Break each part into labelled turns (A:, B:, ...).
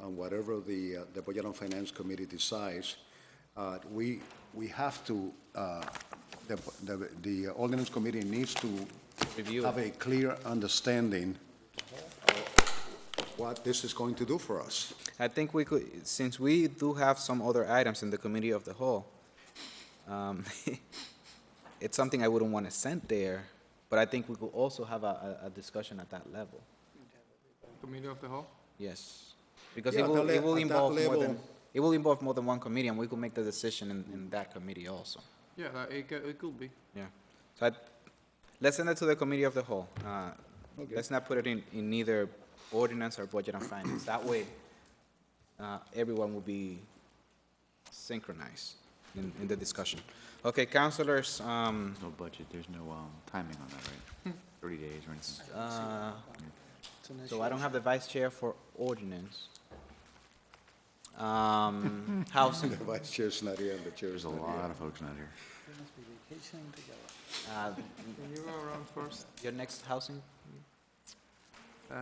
A: on whatever the, uh, the Budget and Finance Committee decides, uh, we, we have to, uh, the, the, the ordinance committee needs to
B: Review it.
A: have a clear understanding of what this is going to do for us.
B: I think we could, since we do have some other items in the committee of the whole, um, it's something I wouldn't want to send there, but I think we could also have a, a, a discussion at that level,
C: Committee of the whole?
B: yes. Because
A: Yeah,
B: it
A: at
B: will,
A: that
B: it
A: le-
B: will
A: at that
B: involve more than,
A: level-
B: it will involve more than one committee, and we could make the decision in, in that committee also,
C: Yeah, uh, it, ca- it could be.
B: yeah. So I, let's send it to the committee of the whole, uh, let's not put it in, in either ordinance or budget and finance, that way, uh, everyone will be synchronized in, in the discussion. Okay, counselors, um,
D: No budget, there's no um, timing on that, right? 30 days or anything?
B: uh, so I don't have the vice chair for ordinance. Um, housing,
A: The vice chair's not here, and the chair is
D: There's a
A: not here.
D: lot of folks not here.
B: uh,
C: Can you go around first?
B: your next housing,
C: Uh,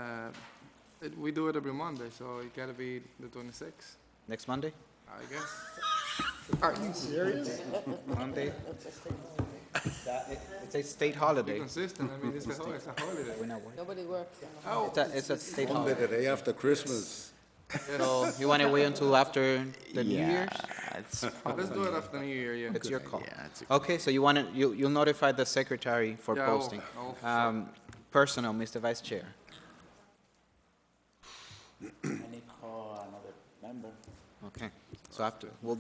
C: it- We do it every Monday, so it gotta be the twenty-sixth,
B: next Monday?
C: I guess.
B: Monday? That- it- It's a state holiday.
C: Be consistent, I mean, it's a holiday, it's a holiday.
B: We're not working.
E: Nobody works.
C: Oh,
B: It's a, it's a state
A: Monday,
B: holiday.
A: the day after Christmas.
B: So you want to wait until after the New Year's?
D: It's
C: let's do it after New Year, yeah.
B: It's your call.
D: Yeah, it's
B: Okay, so you want to, you, you'll notify the secretary for
C: Yeah, I will.
B: posting.
C: I will.
B: Um, Personal, Mr. Vice Chair.
F: I need to call another member.
B: Okay, so after, we'll,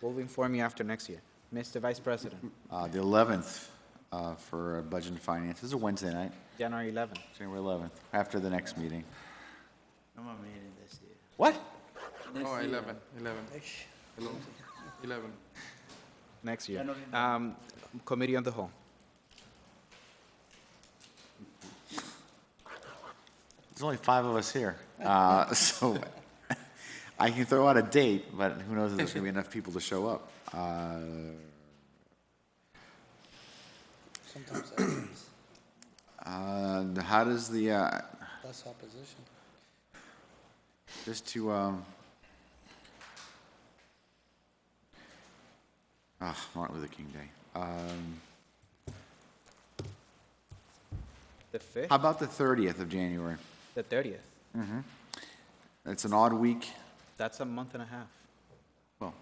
B: we'll inform you after next year. Mr. Vice President,
D: Uh, The 11th uh, for uh, Budget and Finance, this is a Wednesday night,
B: January 11th.
D: January 11th, after the next meeting.
F: No more meeting this year.
D: What?
C: Oh, eleven, eleven,
F: Next-
C: eleven, eleven.
B: Next year.
F: January
B: Um, Committee on the Whole.
D: There's only five of us here. Uh, So I can throw out a date, but who knows if there's going to be enough people to show up. Uh,
F: Sometimes that is-
D: uh, How does the, uh,
F: that's opposition.
D: Just to, um, ah, Martin Luther King Day. Um,
B: The
D: how
B: 5th,
D: about the thirtieth of January?
B: the 30th.
D: It's an odd week.
B: That's a month and a half.
D: Well,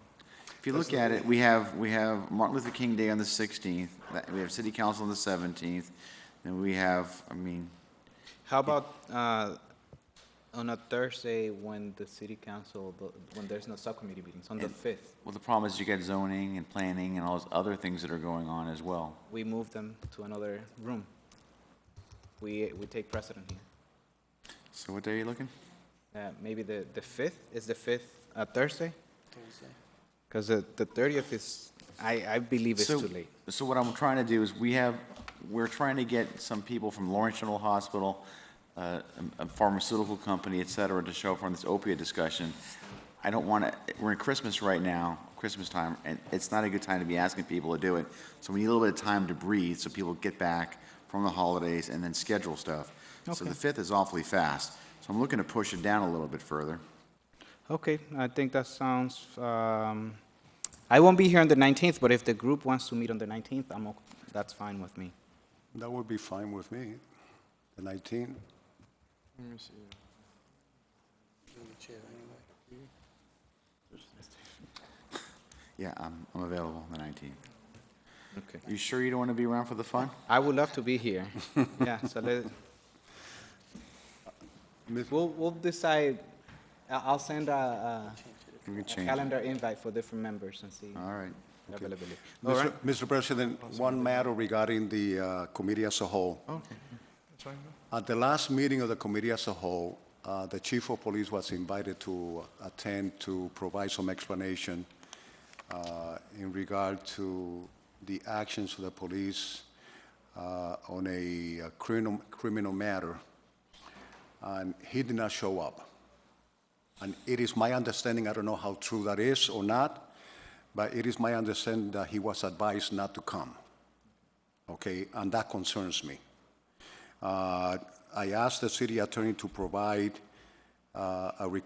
D: if you look at it, we have, we have Martin Luther King Day on the sixteenth, we have city council on the seventeenth, and we have, I mean,
B: How about uh, on a Thursday when the city council, when there's no subcommittee meetings, on the 5th?
D: well, the problem is you get zoning and planning and all those other things that are going on as well.
B: We move them to another room. We, we take precedent here.
D: So what day are you looking?
B: Uh, Maybe the, the 5th, is the 5th a Thursday?
F: Thursday.
B: Because the the 30th is, I, I believe it's
D: So-
B: too late.
D: So what I'm trying to do is we have, we're trying to get some people from Lawrence General Hospital, uh, a a pharmaceutical company, et cetera, to show up on this opiate discussion. I don't want to, we're in Christmas right now, Christmas time, and it's not a good time to be asking people to do it. So we need a little bit of time to breathe so people get back from the holidays and then schedule stuff. So the 5th is awfully fast. So I'm looking to push it down a little bit further.
B: Okay, I think that sounds, um, I won't be here on the 19th, but if the group wants to meet on the 19th, I'm, ok- that's fine with me.
A: That would be fine with me, the 19th.
C: Let me see.
F: Through the chair anyway.
D: Yeah, I'm, I'm available on the 19th.
B: Okay.
D: You sure you don't want to be around for the fun?
B: I would love to be here. Yeah, so let,
A: Miss-
B: we'll, we'll decide, I- I'll send a,
D: We can
B: a
D: change it. Ah,
B: calendar invite for different members and see
D: All right.
B: availability. All
A: Mr.
B: right,
A: Mr. President, one matter regarding the uh, committee as a whole.
D: Okay.
A: At the last meeting of the committee as a whole, uh, the chief of police was invited to attend to provide some explanation uh, in regard to the actions of the police uh, on a uh, criminal criminal matter, and he did not show up. And it is my understanding, I don't know how true that is or not, but it is my understanding that he was advised not to come. Okay, and that concerns me. Uh, I asked the city attorney to provide uh, a request